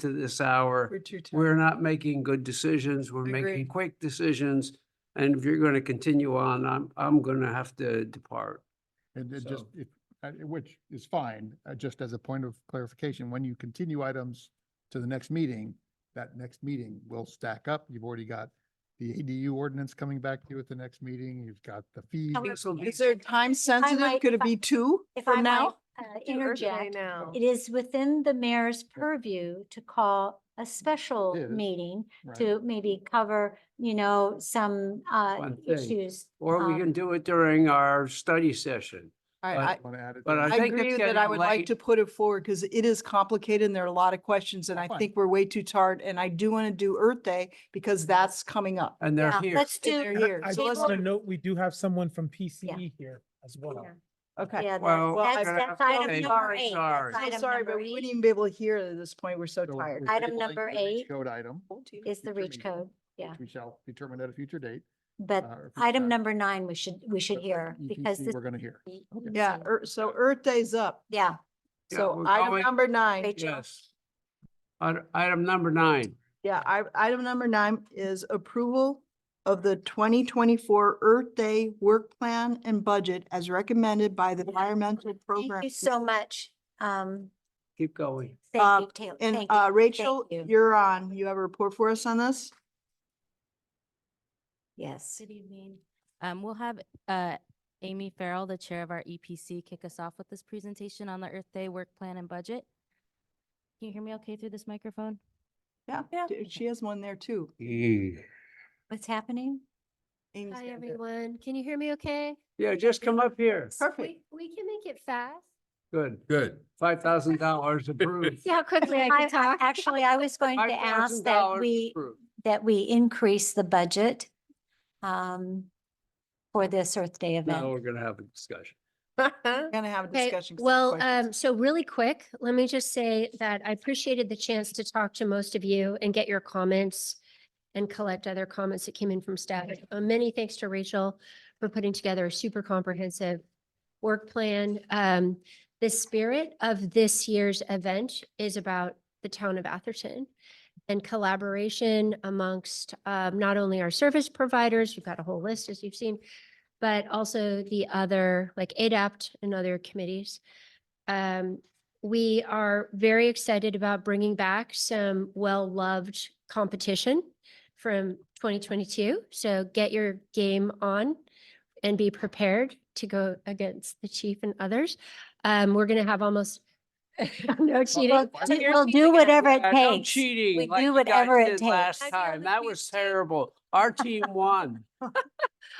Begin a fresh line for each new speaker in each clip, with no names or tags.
to this hour,
We're too tired.
we're not making good decisions. We're
Agree.
making quick decisions. And if you're going to continue on, I'm, I'm going to have to depart.
And it just,
So-
if, uh, which is fine, uh, just as a point of clarification, when you continue items to the next meeting, that next meeting will stack up. You've already got the ADU ordinance coming back to you at the next meeting. You've got the fees.
Tell me-
This will be-
Is there time sensitive?
might-
Could
if
it
I-
be two
If I
from
might
now? Too
uh,
early
interject,
now.
it is within the mayor's purview to call a special
It is.
meeting
Right.
to maybe cover, you know, some uh,
One thing.
issues.
Or we
um,
can do it during our study session.
I,
But-
I,
Want to add it
but
there?
I
I
think
agree
it's
that I
getting
would like
late.
to put it forward because it is complicated and there are a lot of questions and I
Fine.
think we're way too tired. And I do want to do Earth Day because that's coming up.
And
yeah,
they're here.
Let's
And
do.
they're here.
I
So
just
let's-
want to note, we do have someone from PCE here as well.
yeah,
Okay.
yeah,
Well,
that's-
I-
That's that's item
I'm
number
sorry,
eight.
sorry. I'm
that's
I'm
item
sorry,
number
but we
eight
wouldn't even be able to hear at this point. We're so
So
tired.
we're
Item
tabling
number
the reach
eight
Code item.
Is
future
the reach
meeting,
code, yeah.
which We shall determine at a future date.
But
uh, or future
item
time.
number nine, we should, we should
But
hear because
EPC
this.
E We're going to hear.
Yeah, Ear- so Earth Day's up.
Yeah,
Yeah,
So
we're
item
going-
number nine,
Rachel.
Yes. Item- Item number nine.
yeah, I, item number nine is approval of the twenty twenty-four Earth Day Work Plan and Budget as recommended by the Environmental Program.
thank you so much. Um,
Keep going.
Uh,
thank you, Taylor.
And
Thank you.
uh, Rachel,
you.
you're on. You have a report for us on this?
Yes.
Good evening. Um, we'll have, uh, Amy Farrell, the Chair of our EPC, kick us off with this presentation on the Earth Day Work Plan and Budget. Can you hear me okay through this microphone?
Yeah, d- she has one there too.
What's happening?
Amy's
Hi,
got it.
everyone. Can you hear me okay?
Yeah, just come up here.
Perfect.
We, we can make it fast.
Good. Good. Five thousand dollars approved.
See how quickly I can talk?
Actually, I was going to ask that
$5,000
we,
approved.
that we increase the budget um, for this Earth Day
Now
event.
we're gonna have a discussion.
We're gonna have a
Okay,
discussion. 'cause there's
well,
questions.
um, so really quick, let me just say that I appreciated the chance to talk to most of you and get your comments and collect other comments that came in from staff. Uh, Many thanks to Rachel for putting together a super comprehensive work plan. Um, the spirit of this year's event is about the town of Atherton and collaboration amongst, um, not only our service providers, you've got a whole list as you've seen, but also the other, like ADAPT and other committees. Um, we are very excited about bringing back some well-loved competition from twenty twenty-two. So get your game on and be prepared to go against the chief and others. Um, we're gonna have almost no cheating.
We'll we'll do whatever it
Uh, no
takes.
cheating.
We
like
do
you
whatever
guys
it
did Last
takes.
I'd be on
time,
the
that
team
was
too.
terrible. Our team won.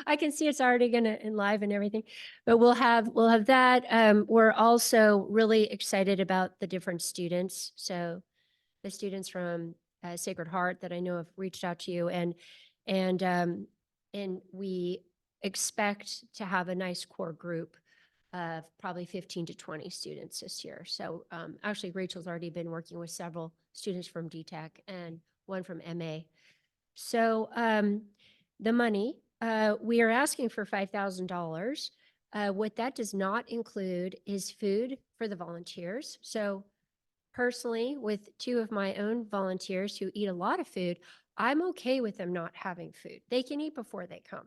I can see it's already gonna enliven everything, but we'll have, we'll have that. Um, we're also really excited about the different students. So the students from uh, Sacred Heart that I know have reached out to you and, and, um, and we expect to have a nice core group of probably fifteen to twenty students this year. So, um, actually Rachel's already been working with several students from DTech and one from MA. So, um, the money. Uh, we are asking for five thousand dollars. Uh, what that does not include is food for the volunteers. So personally, with two of my own volunteers who eat a lot of food, I'm okay with them not having food. They can eat before they come.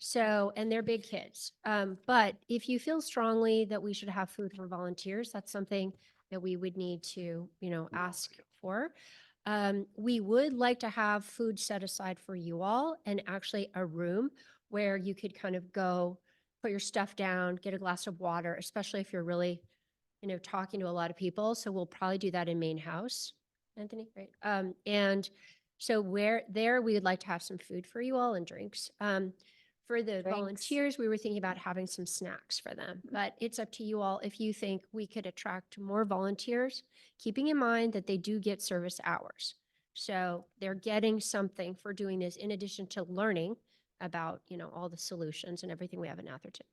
So, and they're big kids. Um, but if you feel strongly that we should have food for volunteers, that's something that we would need to, you know, ask for. Um, we would like to have food set aside for you all and actually a room where you could kind of go, put your stuff down, get a glass of water, especially if you're really, you know, talking to a lot of people. So we'll probably do that in main house. Anthony, right? Um, and so where there, we would like to have some food for you all and drinks. Um, for the
Drinks.
volunteers, we were thinking about having some snacks for them, but it's up to you all if you think we could attract more volunteers keeping in mind that they do get service hours. So they're getting something for doing this in addition to learning about, you know, all the solutions and everything we have in Atherton.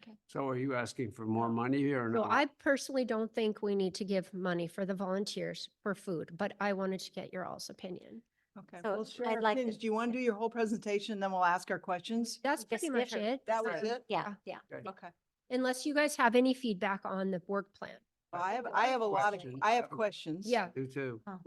Okay.
So are you asking for more money here or
So
no?
I personally don't think we need to give money for the volunteers for food, but I wanted to get your all's opinion.
Okay,
so
we'll share
I'd
our
like to-
opinions. Do you want to do your whole presentation, then we'll ask our questions?
That's
Just
pretty much
different.
it.
That was
Um,
it?
Yeah, yeah.
Okay.
Unless you guys have any feedback on the work plan.
I have, I have a lot of,
Questions.
I have questions.
Yeah.
Do too.